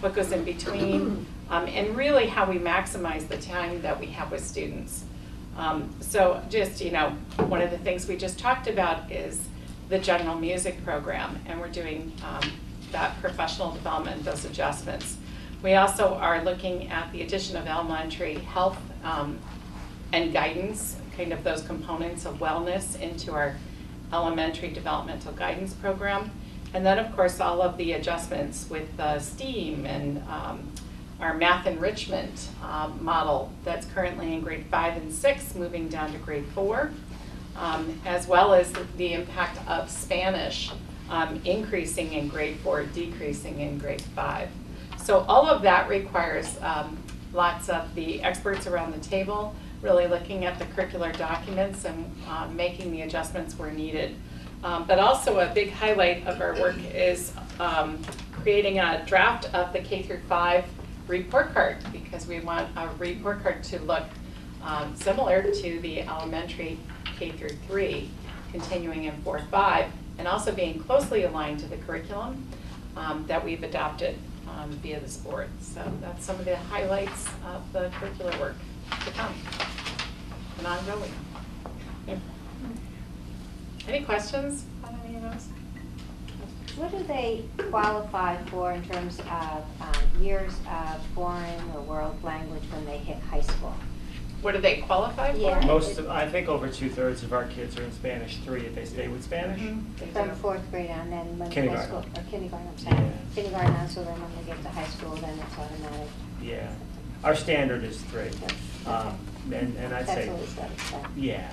what goes in between, um, and really how we maximize the time that we have with students. Um, so just, you know, one of the things we just talked about is the general music program, and we're doing, um, that professional development, those adjustments. We also are looking at the addition of elementary health, um, and guidance, kind of those components of wellness into our elementary developmental guidance program. And then, of course, all of the adjustments with uh, STEAM and um, our math enrichment um, model that's currently in grade five and six, moving down to grade four, um, as well as the impact of Spanish um, increasing in grade four, decreasing in grade five. So all of that requires um, lots of the experts around the table, really looking at the curricular documents and uh, making the adjustments where needed. Um, But also a big highlight of our work is um, creating a draft of the K through five report card because we want a report card to look um, similar to the elementary K through three, continuing in four, five, and also being closely aligned to the curriculum um, that we've adopted um, via this board. So that's some of the highlights of the curricular work to come and ongoing. Any questions on any of those? What do they qualify for in terms of um, years of foreign or world language when they hit high school? What do they qualify for? Yeah. Most of, I think over two-thirds of our kids are in Spanish three if they stay with Spanish. Mhm. They From do. fourth grade on, then when high Kindergarten. school, or kindergarten, I'm sorry. Yeah. Kindergarten on, so then when they get to high school, then it's automatic. Yeah, our standard is three. Um, And, and I'd That's say, what we started with. yeah,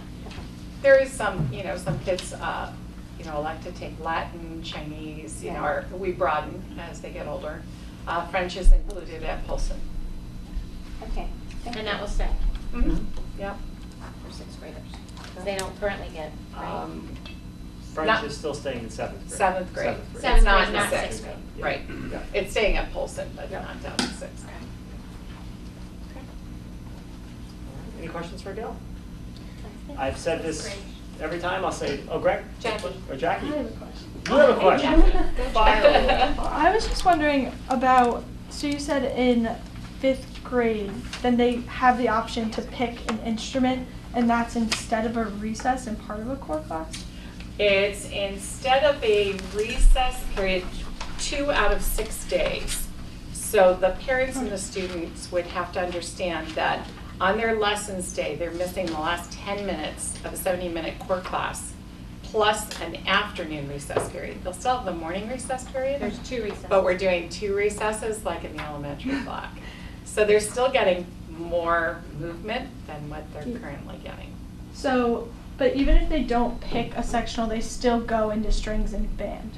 There is some, you know, some kids, uh, you know, elect to take Latin, Chinese, you know, Yeah. or we broaden as they get older. Uh, French is included at Polson. Okay. thank And you. that will stay Mm-hmm. Mm-hmm. Yep. for sixth graders, 'cause they don't currently get, right? um, Not- French is still staying in seventh grade. Seventh grade. Seventh It's Seventh not grade, the not sixth. sixth grade. Yeah. Right. Yeah. It's staying at Polson, but Yep. not down to sixth. Okay. Any questions for Gail? I've said this every time, I'll say, oh, Greg? Jackie. Or Jackie? I have a You question. have a question? Jackie. Fire. I was just wondering about, so you said in fifth grade, then they have the option to pick an instrument, and that's instead of a recess and part of a core class? It's instead of a recess period, two out of six days. So the parents and the students would have to understand that on their lessons day, they're missing the last 10 minutes of a 70-minute core class, plus an afternoon recess period. They'll still have the morning recess period. There's two recesses. But we're doing two recesses like in the elementary block. So they're still getting more movement than what they're Mm. currently getting. So, but even if they don't pick a sectional, they still go into strings and band,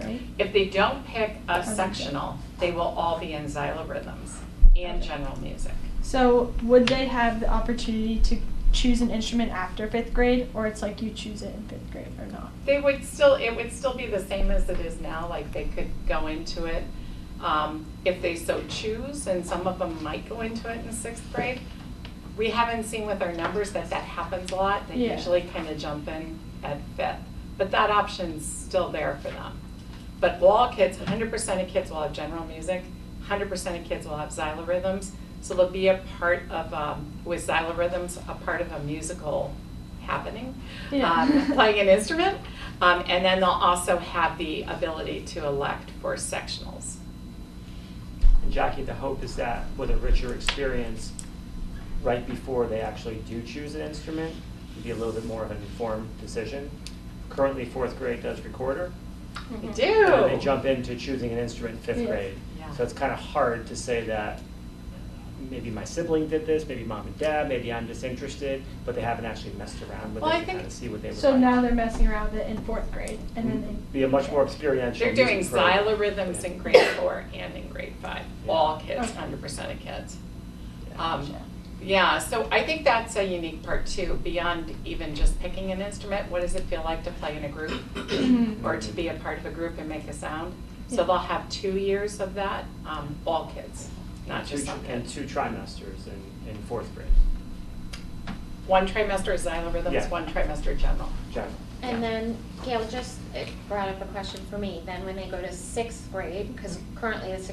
right? If they don't pick a Okay. sectional, they will all be in xylorhythms and general music. So would they have the opportunity to choose an instrument after fifth grade, or it's like you choose it in fifth grade or not? They would still, it would still be the same as it is now, like they could go into it um, if they so choose, and some of them might go into it in sixth grade. We haven't seen with our numbers that that happens a lot. They Yeah. usually kind of jump in at fifth, but that option's still there for them. But all kids, 100% of kids will have general music, 100% of kids will have xylorhythms. So they'll be a part of, um, with xylorhythms, a part of a musical happening, Yeah. um, playing an instrument. Um, and then they'll also have the ability to elect for sectionals. And Jackie, the hope is that with a richer experience, right before they actually do choose an instrument, it'd be a little bit more of an informed decision. Currently, fourth grade does recorder, They Mhm. do. and then they jump into choosing an instrument in fifth Yeah. grade. Yeah. So it's kind of hard to say that maybe my sibling did this, maybe mom and dad, maybe I'm disinterested, but they haven't actually messed around with it Well, I to kind think- of see what they would like. So now they're messing around with it in fourth grade, and then they. Be a much more experiential They're doing music program. xylorhythms in grade four and in grade five, all kids, Okay. hundred percent of kids. Yeah. Um, yeah, so I think that's a unique part too, beyond even just picking an instrument, what does it feel like to play in a group? Mhm. Or to be a part of a group and make a sound? So Yeah. they'll have two years of that, um, all kids, not And just two- some And kids. two trimesters in, in fourth grade, One trimester is xylorhythms, Yeah. one trimester general. general. And then, Gail, just, it brought up a question for me, then when they go to sixth grade, because currently the sixth